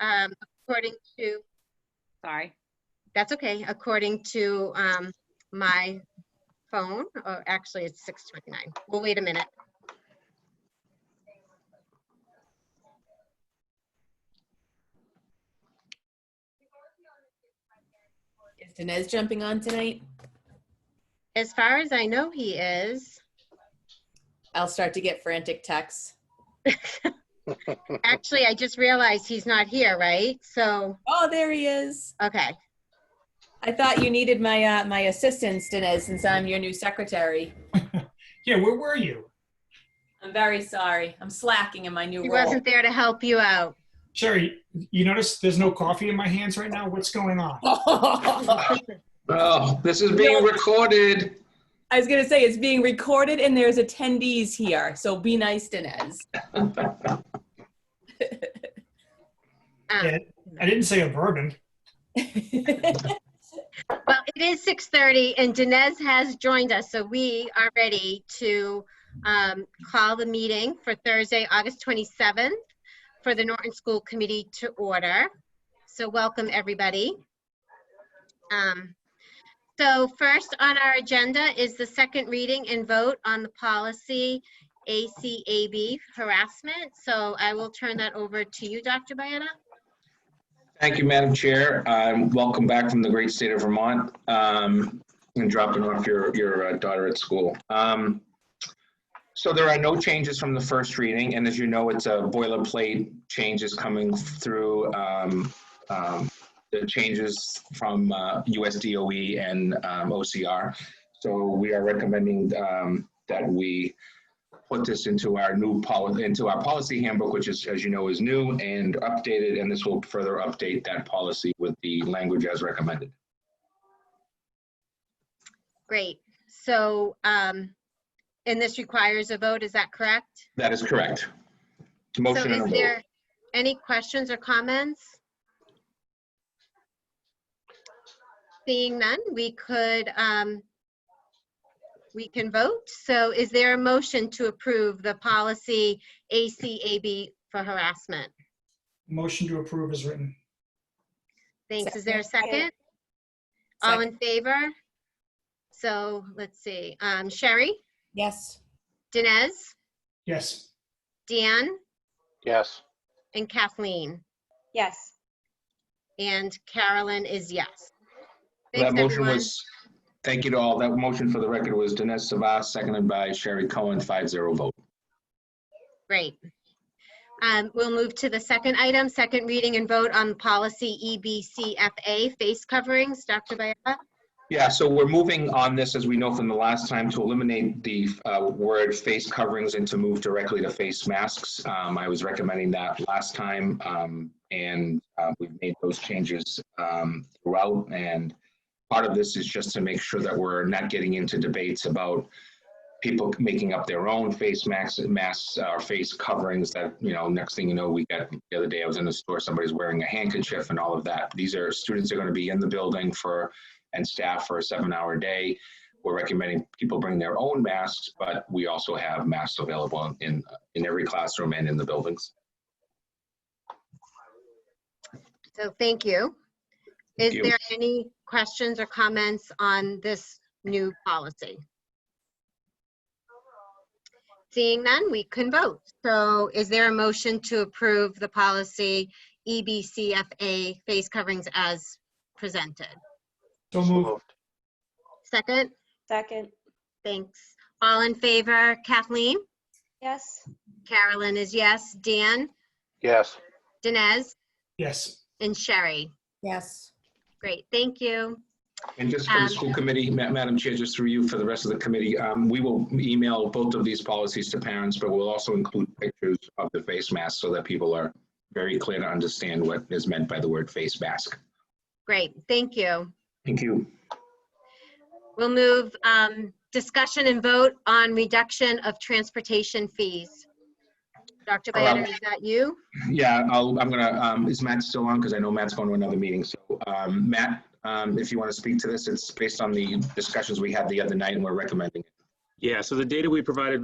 um, according to, Sorry. that's okay, according to, um, my phone, or actually it's six twenty-nine. We'll wait a minute. Is Dinesh jumping on tonight? As far as I know, he is. I'll start to get frantic texts. Actually, I just realized he's not here, right? So, Oh, there he is. okay. I thought you needed my uh, my assistance, Dinesh, since I'm your new secretary. Yeah, where were you? I'm very sorry. I'm slacking in my new He role. wasn't there to help you out. Sherry, you notice there's no coffee in my hands right now? What's going on? I Oh, this is being recorded. was gonna say it's being recorded and there's attendees here, so be nice, Dinesh. Um, Yeah, I didn't say a bourbon. Well, it is 6:30 and Dinesh has joined us, so we are ready to um, call the meeting for Thursday, August 27th for the Norton School Committee to order. So welcome, everybody. Um, So first on our agenda is the second reading and vote on the policy ACAB harassment. So I will turn that over to you, Dr. Bianna. Thank you, Madam Chair. Um, Welcome back from the great state of Vermont um, and dropping off your, your uh, daughter at school. Um, So there are no changes from the first reading, and as you know, it's a boilerplate changes coming through um, um, the changes from uh, USDOE and um, OCR. So we are recommending um, that we put this into our new policy, into our policy handbook, which is, as you know, is new and updated, and this will further update that policy with the language as recommended. Great. So, um, and this requires a vote, is that correct? That is correct. So Motion and a is vote. there Any questions or comments? Seeing none, we could, um, we can vote. So is there a motion to approve the policy ACAB for harassment? Motion to approve is written. Thanks. Is there a Second. second? All in favor? So let's see, um, Sherry, Yes. Dinesh, Yes. Deanne, Yes. and Kathleen. Yes. And Carolyn is yes. That Thanks, motion everyone. was, thank you to all. That motion for the record was Dinesh Savas, seconded by Sherry Cohen, 5-0 vote. Great. Um, We'll move to the second item, second reading and vote on policy E EBCFA, face coverings. Dr. Biella? Yeah, so we're moving on this, as we know from the last time, to eliminate the uh, word face coverings and to move directly to face masks. Um, I was recommending that last time, um, and uh, we've made those changes um, throughout. And part of this is just to make sure that we're not getting into debates about people making up their own face masks, masks uh, or face coverings that, you know, next thing you know, we got, the other day I was in the store, somebody's wearing a handkerchief and all of that. These are, students are going to be in the building for and staff for a seven-hour day. We're recommending people bring their own masks, but we also have masks available in, in every classroom and in the buildings. So thank you. Thank Is you. there any questions or comments on this new policy? Seeing none, we can vote. So is there a motion to approve the policy E EBCFA, face coverings as presented? So moved. Second? Second. Thanks. All in favor, Kathleen? Yes. Carolyn is yes. Dan, Yes. Dinesh, Yes. and Sherry. Yes. Great, thank you. And just for Um, the school committee, Ma- Madam Chair, just through you for the rest of the committee, um, we will email both of these policies to parents, but we'll also include pictures of the face mask so that people are very clear to understand what is meant by the word face mask. Great, thank you. Thank you. We'll move, um, discussion and vote on reduction of transportation fees. Dr. Hello. Bietta, is that you? Yeah, I'll, I'm gonna, um, is Matt still on? Because I know Matt's going to another meeting. So, um, Matt, um, if you want to speak to this, it's based on the discussions we had the other night and we're recommending it. Yeah, so the data we provided